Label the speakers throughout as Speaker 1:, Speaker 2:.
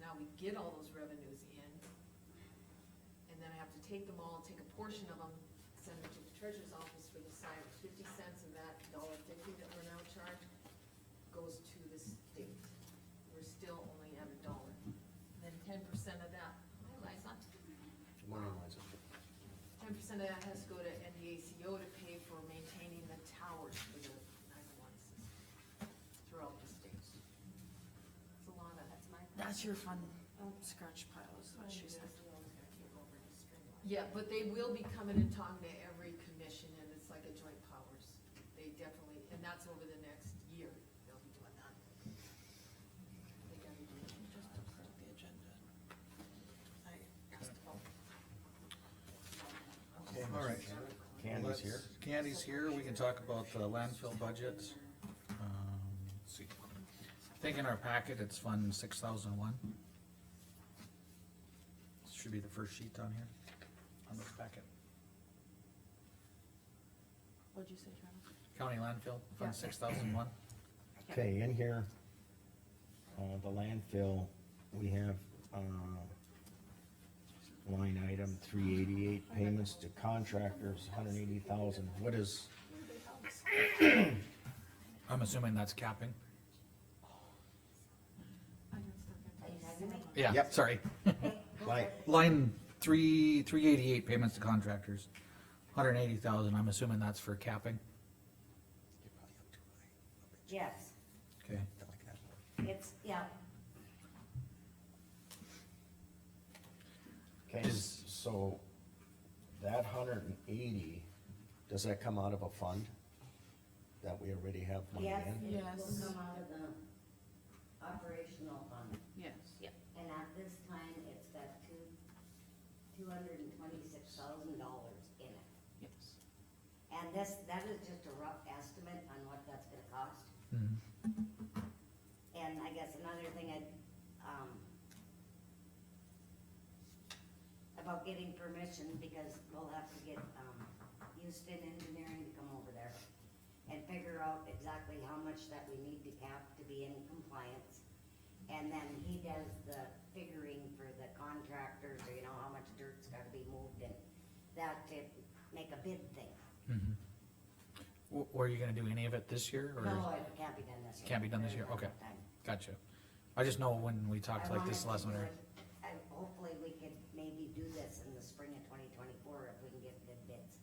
Speaker 1: now we get all those revenues in. And then I have to take them all, take a portion of them, send it to the treasurer's office for the side of fifty cents of that dollar fifty that we're now charged goes to the state. We're still only at a dollar. And Then ten percent of that, my lights on.
Speaker 2: Good morning, Liza.
Speaker 1: Ten percent of that has to go to NDACO to pay for maintaining the towers for the nine-one system throughout the state. It's a lot of. That's my.
Speaker 3: That's your fun scratch pile, is what she said.
Speaker 1: Yeah, but they will be coming and talking to every commission, and it's like a joint powers. They definitely, and that's over the next year, they'll be doing that. They gotta do it.
Speaker 3: Just to print the agenda. I asked about.
Speaker 4: Okay, all right.
Speaker 2: Candy's here.
Speaker 4: Let's- Candy's here, we can talk about the landfill budgets. Um, let's see. I think in our packet, it's fund six thousand one. Should be the first sheet on here, on this packet.
Speaker 3: What'd you say, Travis?
Speaker 4: County landfill,
Speaker 3: Yeah.
Speaker 4: fund six thousand one.
Speaker 2: Okay, in here, uh, the landfill, we have, uh, line item three eighty-eight, payments to contractors, hundred eighty thousand, what is,
Speaker 4: I'm assuming that's capping? Yeah,
Speaker 2: Yep.
Speaker 4: sorry.
Speaker 2: like,
Speaker 4: Line three, three eighty-eight, payments to contractors, hundred and eighty thousand, I'm assuming that's for capping,
Speaker 5: Yes,
Speaker 4: okay?
Speaker 5: it's, yeah,
Speaker 2: okay,
Speaker 4: Is-
Speaker 2: so that hundred and eighty, does that come out of a fund? That we already have money
Speaker 5: yes,
Speaker 2: in?
Speaker 5: it will
Speaker 3: Yes.
Speaker 5: come out of the operational fund,
Speaker 3: Yes.
Speaker 5: and at this time, it's got two, two hundred and twenty-six thousand dollars in it.
Speaker 3: Yes.
Speaker 5: And this, that is just a rough estimate on what that's gonna cost,
Speaker 4: Mhm.
Speaker 5: and I guess another thing I, um, about getting permission, because we'll have to get, um, Houston Engineering to come over there and figure out exactly how much that we need to cap to be in compliance. And then he does the figuring for the contractors, or you know, how much dirt's gotta be moved and that to make a bid thing.
Speaker 4: Mhm. W- Were you gonna do any of it this year, or?
Speaker 5: No, it can't be done this year.
Speaker 4: Can't be done this year, okay. Gotcha. I just know when we talked like this last winter.
Speaker 5: I, hopefully we could maybe do this in the spring of twenty twenty-four if we can get good bids.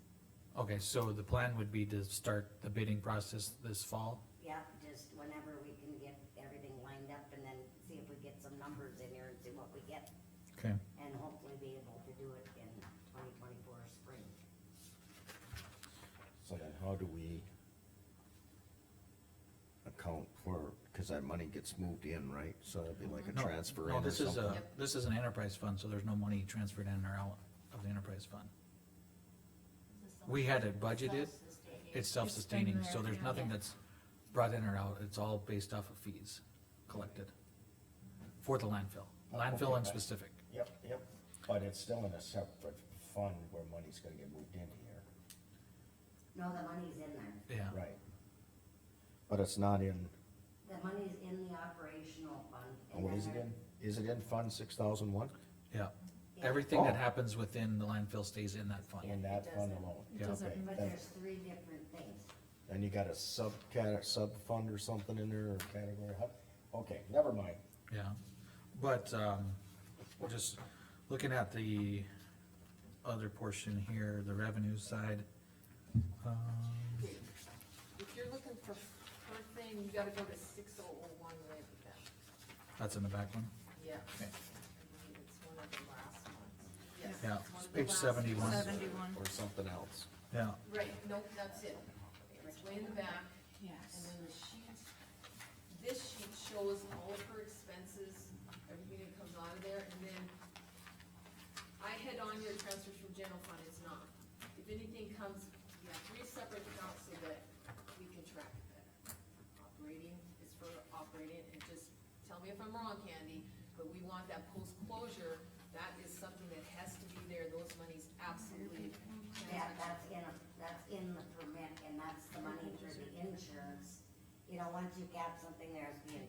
Speaker 4: Okay, so the plan would be to start the bidding process this fall?
Speaker 5: Yeah, just whenever we can get everything lined up and then see if we get some numbers in here and see what we get.
Speaker 4: Okay.
Speaker 5: and hopefully be able to do it in twenty twenty-four spring.
Speaker 2: So then how do we account for, cause that money gets moved in, right? So it'd be like a
Speaker 4: No,
Speaker 2: transfer
Speaker 4: No,
Speaker 2: in or
Speaker 4: this is
Speaker 2: something?
Speaker 4: a, this is an enterprise fund, so there's no money transferred in or out of the enterprise fund. We had it budgeted, it's self-sustaining, so there's nothing that's brought in or out, it's all based off of fees collected. For the landfill,
Speaker 2: Oh,
Speaker 4: landfill
Speaker 2: okay,
Speaker 4: in
Speaker 2: gotcha.
Speaker 4: specific,
Speaker 2: Yep, yep, but it's still in a separate fund where money's gonna get moved in here,
Speaker 5: No, the money's in there.
Speaker 4: yeah.
Speaker 2: right? But it's not in,
Speaker 5: The money's in the operational fund.
Speaker 2: oh, what is it in? Is it in Fund six thousand one?
Speaker 4: Yeah, everything that
Speaker 2: Oh.
Speaker 4: happens within the landfill stays in that
Speaker 2: In
Speaker 4: fund.
Speaker 2: that fund
Speaker 5: doesn't.
Speaker 2: alone?
Speaker 4: It doesn't.
Speaker 2: Okay,
Speaker 5: But
Speaker 2: then-
Speaker 5: there's three different things.
Speaker 2: Then you got a subcat, sub-fund or something in there, or category, huh? okay, never mind.
Speaker 4: Yeah, but, um, we're just looking at the other portion here, the revenue side. um,
Speaker 1: If you're looking for her thing, you gotta go to six oh oh one right with that.
Speaker 4: That's in the back one,
Speaker 1: Yeah.
Speaker 4: Okay.
Speaker 1: I believe it's one of the last ones. Yes,
Speaker 4: Yeah,
Speaker 1: it's one of the
Speaker 4: page
Speaker 1: last
Speaker 4: seventy-one.
Speaker 1: ones.
Speaker 3: Seventy-one,
Speaker 2: Or something else.
Speaker 4: yeah,
Speaker 1: Right, no, that's it. It's way in the back, and
Speaker 3: yes.
Speaker 1: then the sheet, this sheet shows all of her expenses, everything that comes out of there, and then I had on your transfers from general fund, it's not. If anything comes, you have three separate accounts so that we can track it better. Operating is for operating, and just tell me if I'm wrong, Candy, but we want that post-closure, that is something that has to be there, those monies absolutely.
Speaker 5: Yeah, that's in, a- that's in the permit, and that's the money for the insurance. You know, once you cap something, there has to be an